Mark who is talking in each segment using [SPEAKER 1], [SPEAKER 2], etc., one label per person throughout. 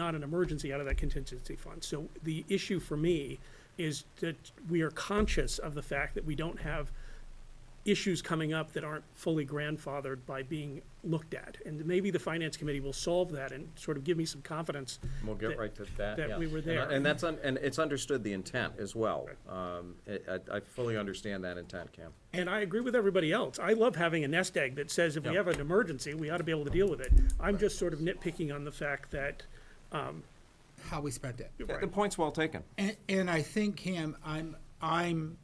[SPEAKER 1] not an emergency out of that contingency fund. So the issue for me is that we are conscious of the fact that we don't have issues coming up that aren't fully grandfathered by being looked at. And maybe the finance committee will solve that and sort of give me some confidence.
[SPEAKER 2] We'll get
[SPEAKER 1] that-
[SPEAKER 2] right to that,
[SPEAKER 1] that
[SPEAKER 2] yeah.
[SPEAKER 1] we were
[SPEAKER 2] And I-
[SPEAKER 1] there.
[SPEAKER 2] And that's, un- and it's understood the intent as well. Um, I, I- I fully understand that intent, Cam.
[SPEAKER 1] And I agree with everybody else. I love having a nest egg that says if we
[SPEAKER 2] Yeah.
[SPEAKER 1] have an emergency, we ought to be able to deal with it. I'm just sort of nitpicking on the fact that,
[SPEAKER 3] how we spent it.
[SPEAKER 2] The point's well taken.
[SPEAKER 3] And, and I think, Cam, I'm, I'm,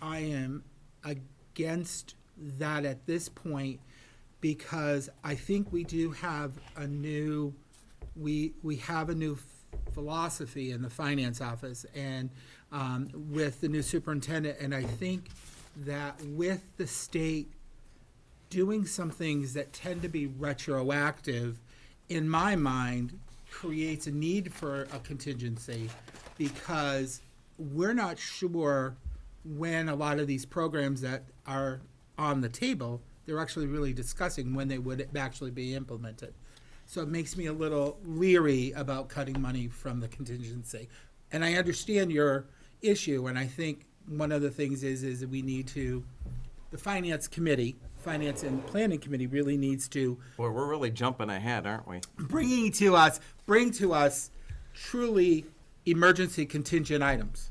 [SPEAKER 3] I am against that at this point because I think we do have a new, we, we have a new philosophy in the finance office and, um, with the new superintendent. And I think that with the state doing some things that tend to be retroactive, in my mind, creates a need for a contingency because we're not sure when a lot of these programs that are on the table, they're actually really discussing when they would actually be implemented. So it makes me a little leery about cutting money from the contingency. And I understand your issue, and I think one of the things is, is that we need to, the finance committee, finance and planning committee really needs to
[SPEAKER 2] Boy, we're really jumping ahead, aren't we?
[SPEAKER 3] bringing to us, bring to us truly emergency contingent items.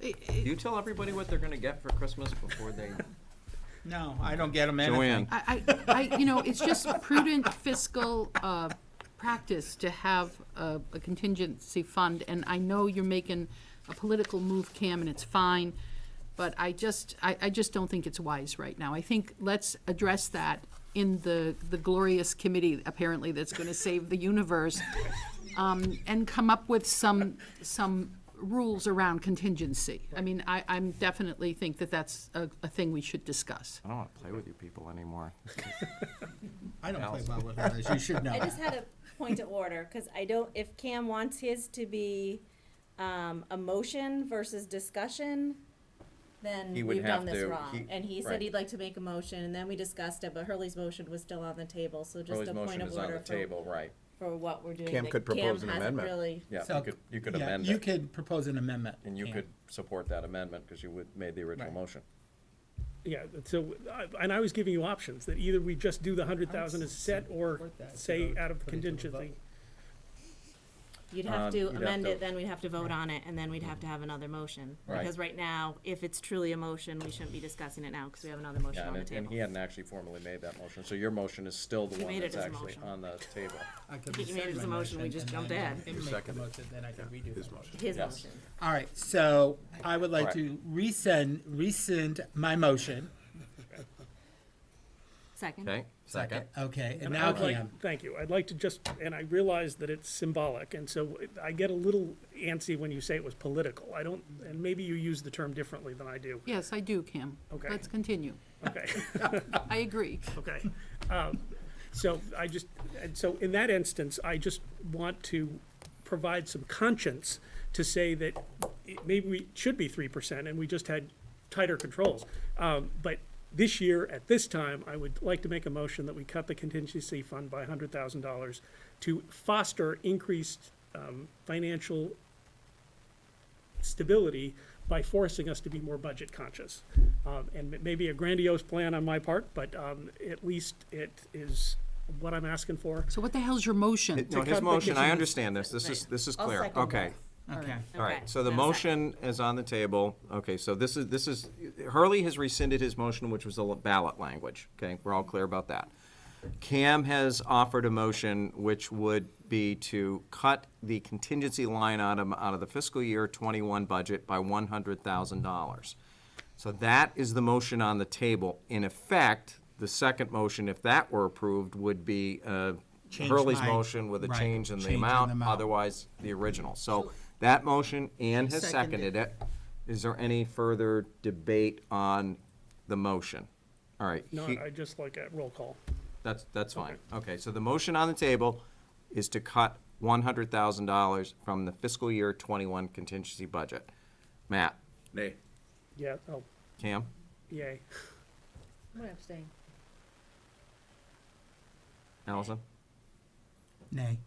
[SPEAKER 2] You tell everybody what they're gonna get for Christmas before they.
[SPEAKER 3] No, I don't get them anything.
[SPEAKER 2] Joanne,
[SPEAKER 4] I, I, I- you know, it's just prudent fiscal uh, practice to have a a contingency fund, and I know you're making a political move, Cam, and it's fine, but I just, I, I just don't think it's wise right now. I think let's address that in the, the glorious committee, apparently, that's going to save the universe, um, and come up with some, some rules around contingency. I mean, I, I'm definitely think that that's a, a thing we should discuss.
[SPEAKER 2] I don't wanna play with you people anymore.
[SPEAKER 3] I don't play well with others, you should know.
[SPEAKER 5] I just had a point of order, because I don't, if Cam wants his to be, um, a motion versus discussion, then
[SPEAKER 2] He would
[SPEAKER 5] we've
[SPEAKER 2] have
[SPEAKER 5] done this
[SPEAKER 2] to-
[SPEAKER 5] wrong.
[SPEAKER 2] he-
[SPEAKER 5] And he
[SPEAKER 2] right.
[SPEAKER 5] said he'd like to make a motion, and then we discussed it, but Hurley's motion was still on the table, so just
[SPEAKER 2] Charlie's
[SPEAKER 5] a point
[SPEAKER 2] motion
[SPEAKER 5] of
[SPEAKER 2] is on the
[SPEAKER 5] order for,
[SPEAKER 2] table, right.
[SPEAKER 5] for what we're doing.
[SPEAKER 6] Cam
[SPEAKER 5] that
[SPEAKER 6] could propose an
[SPEAKER 5] hasn't
[SPEAKER 6] amendment.
[SPEAKER 5] really-
[SPEAKER 2] Yeah,
[SPEAKER 3] So-
[SPEAKER 2] you could, you could
[SPEAKER 3] yeah,
[SPEAKER 2] amend
[SPEAKER 3] You
[SPEAKER 2] it,
[SPEAKER 3] could propose an amendment.
[SPEAKER 2] and you
[SPEAKER 3] Cam.
[SPEAKER 2] could support that amendment, cause you would, made the original
[SPEAKER 3] Right.
[SPEAKER 2] motion.
[SPEAKER 1] yeah, so, I- and I was giving you options, that either we just do the hundred thousand as set or
[SPEAKER 3] support that if you
[SPEAKER 1] say
[SPEAKER 3] vote-
[SPEAKER 1] out of
[SPEAKER 3] put it to the
[SPEAKER 1] contingency.
[SPEAKER 3] vote.
[SPEAKER 5] You'd
[SPEAKER 2] Um,
[SPEAKER 5] have
[SPEAKER 2] you'd
[SPEAKER 5] to
[SPEAKER 2] have
[SPEAKER 5] amend
[SPEAKER 2] to-
[SPEAKER 5] it, then we'd have to vote on it, and then we'd have to have another motion.
[SPEAKER 2] Right.
[SPEAKER 5] Because right now, if it's truly a motion, we shouldn't be discussing it now, because we have another motion
[SPEAKER 2] Yeah,
[SPEAKER 5] on the
[SPEAKER 2] and, and he
[SPEAKER 5] table.
[SPEAKER 2] hadn't actually formally made that motion, so your motion is still the
[SPEAKER 5] He
[SPEAKER 2] one
[SPEAKER 5] made it
[SPEAKER 2] that's
[SPEAKER 5] as a
[SPEAKER 2] actually
[SPEAKER 5] motion.
[SPEAKER 2] on the table.
[SPEAKER 3] I could
[SPEAKER 5] You made it
[SPEAKER 3] rescind
[SPEAKER 5] as a
[SPEAKER 3] my
[SPEAKER 5] motion, we
[SPEAKER 3] motion
[SPEAKER 5] just
[SPEAKER 3] and
[SPEAKER 5] jumped
[SPEAKER 3] then
[SPEAKER 5] in.
[SPEAKER 3] I can make the motion, then I can redo
[SPEAKER 6] His
[SPEAKER 3] that.
[SPEAKER 6] motion.
[SPEAKER 5] His
[SPEAKER 2] Yes.
[SPEAKER 5] motion.
[SPEAKER 3] All right, so I would like
[SPEAKER 2] Right.
[SPEAKER 3] to rescind, rescind my motion.
[SPEAKER 5] Second.
[SPEAKER 2] Okay, second?
[SPEAKER 3] Okay, and
[SPEAKER 1] And
[SPEAKER 3] now
[SPEAKER 1] I'd like-
[SPEAKER 3] Cam.
[SPEAKER 1] Thank you. I'd like to just, and I realize that it's symbolic, and so I get a little antsy when you say it was political. I don't, and maybe you use the term differently than I do.
[SPEAKER 4] Yes, I do, Kim.
[SPEAKER 1] Okay.
[SPEAKER 4] Let's continue.
[SPEAKER 1] Okay,
[SPEAKER 4] I agree.
[SPEAKER 1] okay. Um, So I just, and so in that instance, I just want to provide some conscience to say that it- maybe we should be three percent, and we just had tighter controls. Um, But this year, at this time, I would like to make a motion that we cut the contingency fund by hundred thousand dollars to foster increased um, financial stability by forcing us to be more budget conscious. Um, and it may be a grandiose plan on my part, but um, at least it is what I'm asking for.
[SPEAKER 4] So what the hell's your motion?
[SPEAKER 2] No, his
[SPEAKER 1] cut the
[SPEAKER 2] motion, I
[SPEAKER 1] kitchen-
[SPEAKER 2] understand this, this is, this is
[SPEAKER 5] I'll
[SPEAKER 2] clear,
[SPEAKER 5] second
[SPEAKER 2] okay.
[SPEAKER 3] Okay.
[SPEAKER 5] Okay,
[SPEAKER 2] All right, so the
[SPEAKER 5] then a second.
[SPEAKER 2] motion is on the table. Okay, so this is, this is, Hurley has rescinded his motion, which was the ballot language. Okay, we're all clear about that. Cam has offered a motion which would be to cut the contingency line item out of the fiscal year twenty-one budget by one hundred thousand dollars. So that is the motion on the table. In effect, the second motion, if that were approved, would be uh,
[SPEAKER 3] Change
[SPEAKER 2] Hurley's
[SPEAKER 3] my-
[SPEAKER 2] motion with a
[SPEAKER 3] right,
[SPEAKER 2] change in the
[SPEAKER 3] change in the
[SPEAKER 2] amount,
[SPEAKER 3] amount.
[SPEAKER 2] otherwise otherwise the original. So that motion, Ann has
[SPEAKER 4] Seconded.
[SPEAKER 2] seconded it. Is there any further debate on the motion? All right,
[SPEAKER 1] No,
[SPEAKER 2] he-
[SPEAKER 1] I just like a roll call.
[SPEAKER 2] that's, that's fine. Okay, so the motion on the table is to cut one hundred thousand dollars from the fiscal year twenty-one contingency budget. Matt,
[SPEAKER 6] Nay.
[SPEAKER 1] Yeah, oh,
[SPEAKER 2] Cam,
[SPEAKER 1] yay.
[SPEAKER 5] I'm gonna abstain.
[SPEAKER 2] Allison,
[SPEAKER 3] Nay.